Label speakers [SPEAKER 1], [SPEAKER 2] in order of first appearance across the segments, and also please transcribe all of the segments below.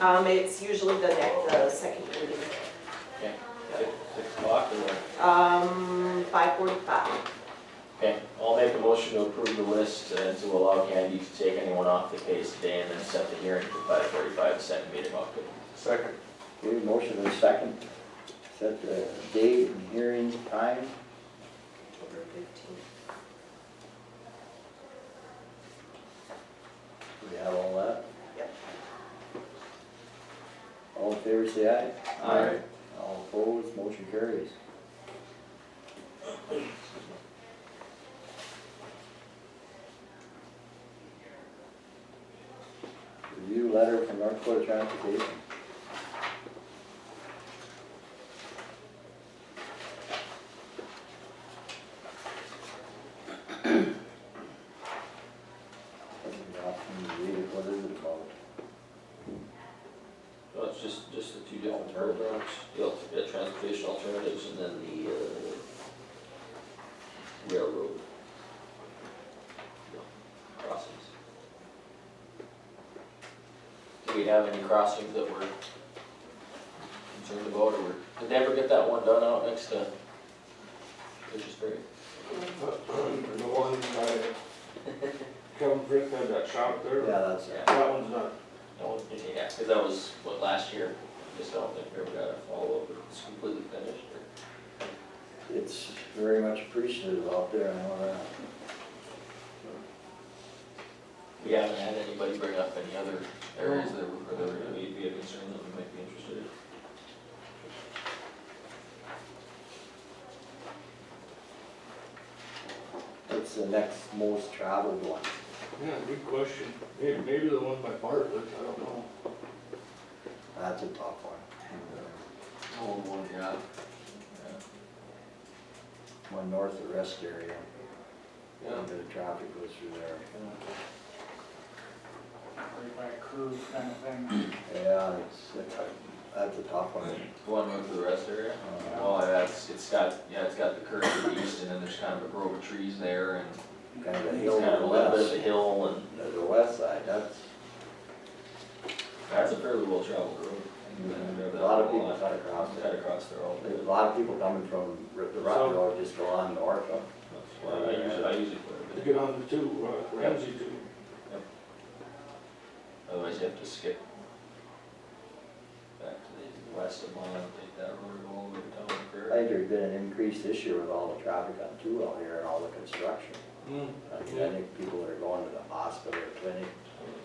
[SPEAKER 1] Um, it's usually the next, the second meeting,
[SPEAKER 2] Okay, six, six o'clock or what?
[SPEAKER 1] um, five forty-five.
[SPEAKER 2] Okay, I'll make a motion to approve the list and to allow Candy to take anyone off the case today and then set the hearing for five forty-five, second meeting October.
[SPEAKER 3] Second.
[SPEAKER 4] Okay, motion and second, set the date and hearing time.
[SPEAKER 1] October fifteenth.
[SPEAKER 4] We have all that?
[SPEAKER 1] Yep.
[SPEAKER 4] All in favor, say aye.
[SPEAKER 3] Aye.
[SPEAKER 4] All opposed, motion carries. Review letter from North Dakota Transportation. Doesn't have to read it. What is it about?
[SPEAKER 2] Well, it's just, just the two different programs, the al- the transportation alternatives and then the, uh, railroad. Crossings. Do we have any crossings that we're concerned about or we're- did they ever get that one done out next to Fishers
[SPEAKER 3] The one by Kevin Frith had that shop there.
[SPEAKER 4] Yeah, that's
[SPEAKER 2] Yeah.
[SPEAKER 4] it.
[SPEAKER 3] That one's not,
[SPEAKER 2] No, yeah, because that was, what, last year, just don't think we ever got a follow-up, it's completely finished, or,
[SPEAKER 4] It's very much appreciated out there and all that.
[SPEAKER 2] we haven't had anybody bring up any other areas that were, that were, be be a concern that we might be interested in.
[SPEAKER 4] It's the next most traveled one.
[SPEAKER 3] yeah, good question. Maybe, maybe the one by Bartlett, I don't know.
[SPEAKER 4] That's a tough one. uh,
[SPEAKER 2] Oh, boy, yeah.
[SPEAKER 4] One north of rest area, a
[SPEAKER 3] Yeah.
[SPEAKER 4] bit of traffic goes through there.
[SPEAKER 5] right by a curve kind of thing.
[SPEAKER 4] Yeah, it's, that's a tough one.
[SPEAKER 2] The one north of the rest area?
[SPEAKER 4] Uh,
[SPEAKER 2] Well, that's, it's got, yeah, it's got the curve to the east, and then there's kind of a grove of trees there, and
[SPEAKER 4] Kind of a
[SPEAKER 2] it's
[SPEAKER 4] hill
[SPEAKER 2] kind
[SPEAKER 4] to
[SPEAKER 2] of a
[SPEAKER 4] the
[SPEAKER 2] little bit of a
[SPEAKER 4] west,
[SPEAKER 2] hill, and
[SPEAKER 4] to the west side, that's,
[SPEAKER 2] that's a fairly well-traveled road.
[SPEAKER 4] a lot of people cut across
[SPEAKER 2] Cut
[SPEAKER 4] there.
[SPEAKER 2] Mm-hmm. across there all the
[SPEAKER 4] There's a lot of people coming from r- the Rock
[SPEAKER 3] So-
[SPEAKER 4] Road, just go on north of.
[SPEAKER 2] That's why I usually, I usually put it in.
[SPEAKER 3] To get on the two, uh, Ramsey two.
[SPEAKER 2] Otherwise you have to skip back to the west of Mile and take that road all the way down to
[SPEAKER 4] I
[SPEAKER 2] Prairie.
[SPEAKER 4] think there's been an increased issue with all the traffic on two out here and all the construction.
[SPEAKER 3] Mm,
[SPEAKER 4] I mean, I think people that are going to the hospital or clinic,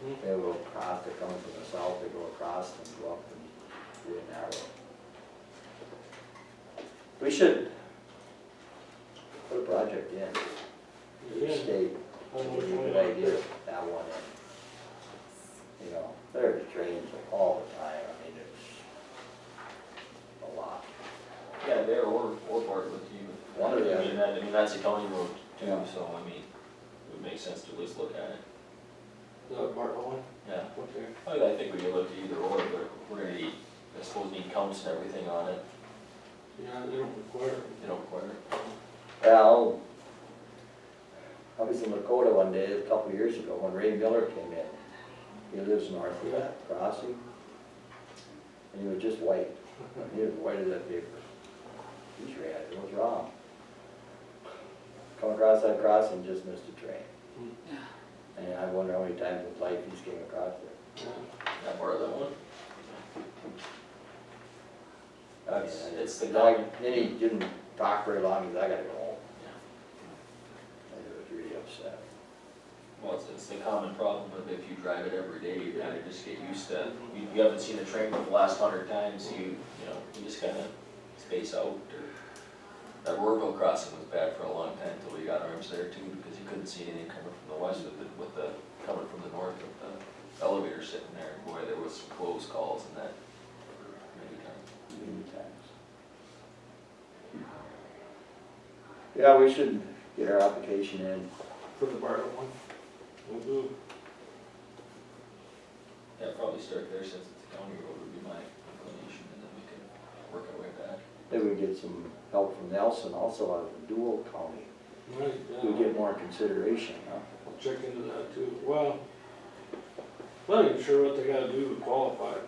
[SPEAKER 3] mm.
[SPEAKER 4] they will cross, they come from the south, they go across and go up and do an arrow. We should put a project in,
[SPEAKER 3] Yeah.
[SPEAKER 4] each state,
[SPEAKER 3] I don't know which
[SPEAKER 4] would be a
[SPEAKER 3] one
[SPEAKER 4] good
[SPEAKER 3] out
[SPEAKER 4] idea,
[SPEAKER 3] there.
[SPEAKER 4] that one in. You know, there's drains all the time, I mean, it's a lot.
[SPEAKER 2] Yeah, there or, or part with you.
[SPEAKER 4] One or the
[SPEAKER 2] I mean, that, I mean, that's a county road too,
[SPEAKER 4] Yeah.
[SPEAKER 2] so I mean, it would make sense to at least look at it.
[SPEAKER 3] The Bartlett one,
[SPEAKER 2] Yeah,
[SPEAKER 3] okay.
[SPEAKER 2] I mean, I think we could look at either or, but we're gonna need, I suppose need counts and everything on it,
[SPEAKER 3] Yeah, they don't require it.
[SPEAKER 2] you know, require it.
[SPEAKER 4] Well, I was in Lakota one day, a couple of years ago, when Ray Miller came in. He lives north of that crossing. And he was just white. He was white as that paper. He's red, what's wrong? Come across that crossing, just missed a train.
[SPEAKER 2] Hmm.
[SPEAKER 4] And I wonder how many times in life he's came across there.
[SPEAKER 3] Yeah.
[SPEAKER 2] That part of that one?
[SPEAKER 4] I mean,
[SPEAKER 2] It's-
[SPEAKER 4] I-
[SPEAKER 2] it's the
[SPEAKER 4] I-
[SPEAKER 2] dog.
[SPEAKER 4] Then he didn't talk very long, he's, I gotta go home.
[SPEAKER 2] Yeah.
[SPEAKER 4] I was really upset.
[SPEAKER 2] Well, it's, it's the common problem of if you drive it every day, you kind of just get used to, you, you haven't seen a train for the last hundred times, you, you know, you just kind of space out. or- That Rourkeville crossing was bad for a long time until we got arms there too, because you couldn't see anything coming from the west with the, with the, coming from the north with the elevator sitting there. Boy, there was some close calls and that many times.
[SPEAKER 4] many times. Yeah, we should get our application in.
[SPEAKER 3] For the Bartlett one. We'll do.
[SPEAKER 2] Yeah, probably start there since it's a county road would be my inclination and then we can work our way back.
[SPEAKER 4] Maybe we get some help from Nelson also out of Dual County.
[SPEAKER 3] Right,
[SPEAKER 4] We
[SPEAKER 3] yeah.
[SPEAKER 4] get more consideration, huh?
[SPEAKER 3] I'll check into that too. Well, not even sure what they gotta do to qualify.